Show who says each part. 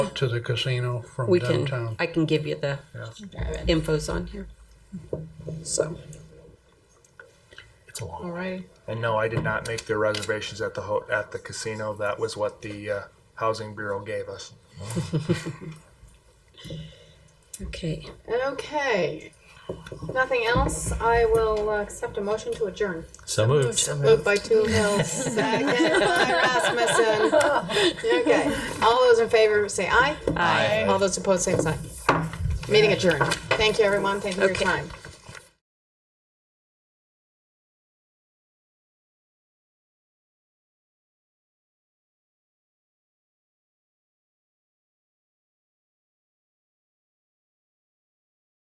Speaker 1: up to the casino from
Speaker 2: We can,
Speaker 1: downtown.
Speaker 2: I can give you the
Speaker 3: Drive it.
Speaker 2: infos on here. So,
Speaker 4: It's a long.
Speaker 3: All right.
Speaker 4: And no, I did not make the reservations at the ho- at the casino. That was what the uh, housing bureau gave us.
Speaker 2: okay,
Speaker 3: Okay. Nothing else. I will uh, accept a motion to adjourn.
Speaker 5: So moved.
Speaker 3: Moved by Two Hills, second by Rasmussen. Okay. All those in favor say aye. Aye. All those opposed, same sign. Meeting adjourned. Thank you, everyone. Thank you for
Speaker 2: Okay.
Speaker 3: your time.